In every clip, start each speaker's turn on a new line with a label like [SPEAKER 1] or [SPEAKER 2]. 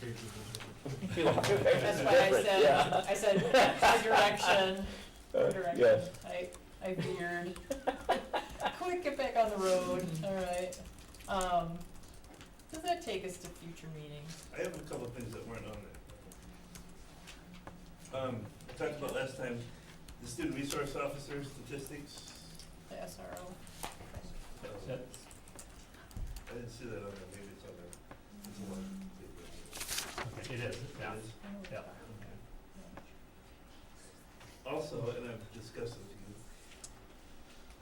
[SPEAKER 1] pages is
[SPEAKER 2] That's why I said, I said, direction, direction.
[SPEAKER 3] Yes.
[SPEAKER 2] I, I figured, quick, get back on the road, all right. Um, does that take us to future meetings?
[SPEAKER 4] I have a couple of things that weren't on there. Um, I talked about last time, the student resource officer statistics.
[SPEAKER 2] The SRO,
[SPEAKER 4] um,
[SPEAKER 1] Yep.
[SPEAKER 4] I didn't see that on there, maybe it's on there. It's a lot.
[SPEAKER 1] It is, yeah.
[SPEAKER 4] It is.
[SPEAKER 2] I don't know what
[SPEAKER 1] Yeah.
[SPEAKER 2] that-
[SPEAKER 4] Also, and I've discussed with you,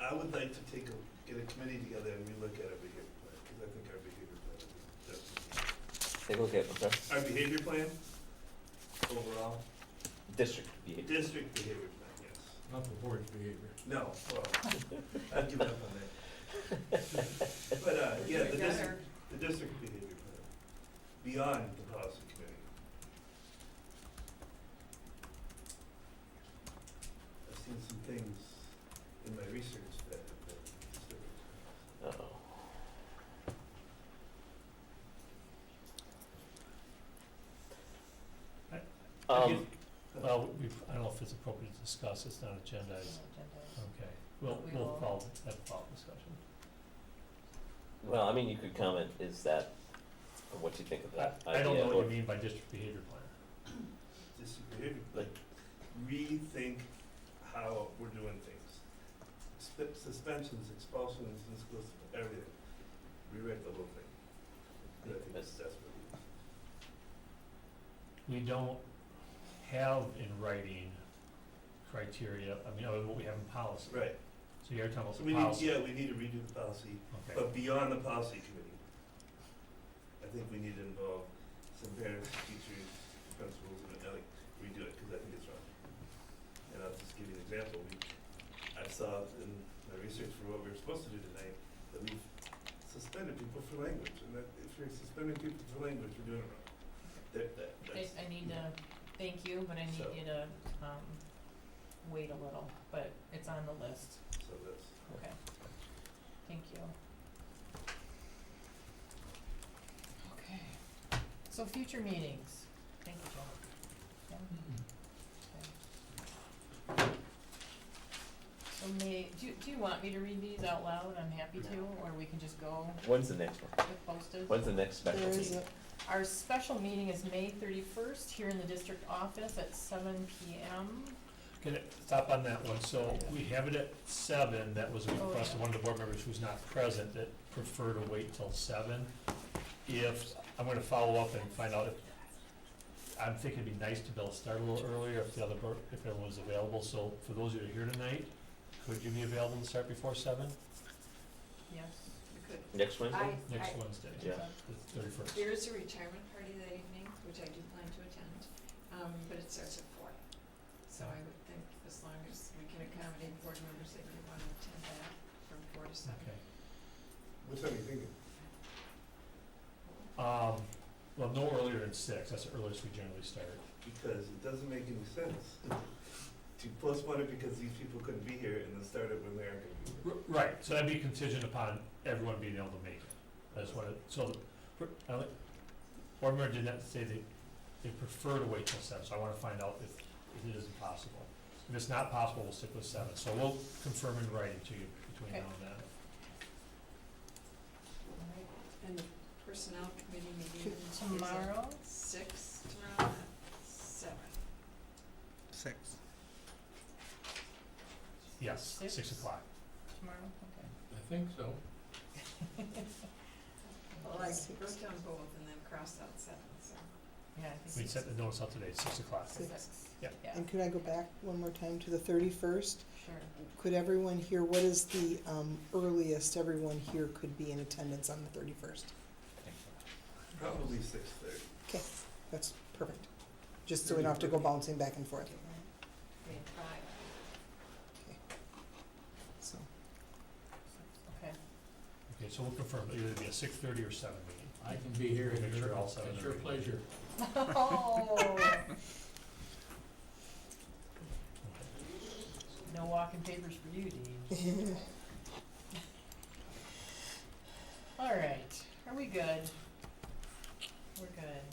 [SPEAKER 4] I would like to take a, get a committee together and relook at our behavior plan, because I think our behavior plan is definitely.
[SPEAKER 3] Take a look at, okay,
[SPEAKER 4] Our behavior plan, overall,
[SPEAKER 3] district behavior.
[SPEAKER 4] district behavior plan, yes.
[SPEAKER 1] Not the board's behavior.
[SPEAKER 4] No, well, I've given up on that. But, uh, yeah, the district,
[SPEAKER 2] Together.
[SPEAKER 4] the district behavior plan, beyond the policy committee. I've seen some things in my research that have been disturbing.
[SPEAKER 3] Uh-oh.
[SPEAKER 1] I
[SPEAKER 3] Um,
[SPEAKER 1] guess- Well, we, I don't know if it's appropriate to discuss, it's not agendized, okay, we'll,
[SPEAKER 2] We
[SPEAKER 1] we'll
[SPEAKER 2] will.
[SPEAKER 1] follow, have a follow discussion.
[SPEAKER 3] well, I mean, you could comment, is that, what you think of that
[SPEAKER 1] I,
[SPEAKER 3] idea?
[SPEAKER 1] I don't know
[SPEAKER 3] or-
[SPEAKER 1] what you mean by district behavior plan.
[SPEAKER 4] District behavior plan, rethink how we're doing things. Sp- Suspensions, expulsions, and schools, everything, rewrite the whole thing. I think that's, that's what we.
[SPEAKER 1] We don't have in writing criteria, I mean, other than what we have in policy,
[SPEAKER 4] Right,
[SPEAKER 1] so you're talking about
[SPEAKER 4] so
[SPEAKER 1] the
[SPEAKER 4] we need,
[SPEAKER 1] policy,
[SPEAKER 4] yeah, we need to redo the policy,
[SPEAKER 1] okay.
[SPEAKER 4] but beyond the policy committee. I think we need to involve some parents, teachers, principals, and like redo it, because I think it's wrong. And I'll just give you an example, we, I saw in my research for what we were supposed to do tonight, that we've suspended people for language, and that if you're suspending people for language, you're doing it wrong. That, that,
[SPEAKER 2] I,
[SPEAKER 4] that's,
[SPEAKER 2] I need to, thank you, but I
[SPEAKER 4] So-
[SPEAKER 2] need you to, um, wait a little, but it's on the list,
[SPEAKER 4] so that's,
[SPEAKER 2] okay. Thank you. Okay, so future meetings, thank you, John.
[SPEAKER 1] Mm-hmm.
[SPEAKER 2] So may, do, you- do you want me to read these out loud? I'm happy to, or we can just go
[SPEAKER 3] When's the next one?
[SPEAKER 2] with posted?
[SPEAKER 3] When's the next special meeting?
[SPEAKER 2] Our special meeting is May thirty-first here in the district office at seven P M.
[SPEAKER 1] Can it, stop on that one, so we have it at seven, that was a
[SPEAKER 2] Oh,
[SPEAKER 1] request
[SPEAKER 2] yeah.
[SPEAKER 1] of one of the board members who's not present, that prefer to wait till seven. If, I'm gonna follow up and find out if, I'm thinking it'd be nice to be able to start a little earlier if the other board, if everyone's available, so for those that are here tonight, could you be available to start before seven,
[SPEAKER 2] Yes.
[SPEAKER 3] Next Wednesday?
[SPEAKER 1] next Wednesday,
[SPEAKER 3] Yeah.
[SPEAKER 1] the thirty-first?
[SPEAKER 5] There is a retirement party that evening, which I do plan to attend, um, but it starts at four. So I would think as long as we can accommodate board members that may want to attend that from four to seven.
[SPEAKER 1] Okay.
[SPEAKER 4] what time are you thinking?
[SPEAKER 1] Um, well, no earlier than six, that's the earliest we generally start.
[SPEAKER 4] because it doesn't make any sense to postpone it because these people couldn't be here and then start it when they're gonna be here.
[SPEAKER 1] R- Right, so that'd be contingent upon everyone being able to make it. I just wanted, so, the- for- I like, board member did not say they, they prefer to wait till seven, so I wanna find out if, if it is possible. If it's not possible, we'll stick with seven, so we'll confirm in writing to you between now and then.
[SPEAKER 5] All right. And the personnel committee meeting is at
[SPEAKER 2] Tomorrow,
[SPEAKER 5] six tomorrow at seven.
[SPEAKER 6] Six.
[SPEAKER 1] Yes, six
[SPEAKER 2] Six?
[SPEAKER 1] o'clock.
[SPEAKER 2] tomorrow, okay.
[SPEAKER 1] I think so.
[SPEAKER 5] Well, I wrote down both and then crossed out seven, so.
[SPEAKER 2] Yeah, I think
[SPEAKER 1] We
[SPEAKER 2] it's
[SPEAKER 1] sent the notice out today, six o'clock.
[SPEAKER 2] six.
[SPEAKER 1] Yeah.
[SPEAKER 2] Yeah,
[SPEAKER 6] And could I go back one more time to the thirty-first?
[SPEAKER 2] sure.
[SPEAKER 6] Could everyone here, what is the um, earliest everyone here could be in attendance on the thirty-first?
[SPEAKER 4] Probably six thirty.
[SPEAKER 6] Okay, that's perfect. Just so we don't have to go bouncing back and forth,
[SPEAKER 5] I mean, five.
[SPEAKER 6] so.
[SPEAKER 2] Okay,
[SPEAKER 1] Okay, so we'll confirm, it'll either be a six thirty or seven meeting.
[SPEAKER 7] I can be here
[SPEAKER 1] Make
[SPEAKER 7] at
[SPEAKER 1] sure
[SPEAKER 7] your,
[SPEAKER 1] all seven
[SPEAKER 7] at
[SPEAKER 1] are
[SPEAKER 7] your
[SPEAKER 1] ready.
[SPEAKER 7] pleasure.
[SPEAKER 2] Oh,
[SPEAKER 1] Okay.
[SPEAKER 2] no walking papers for you, Dean. All right, are we good? We're good.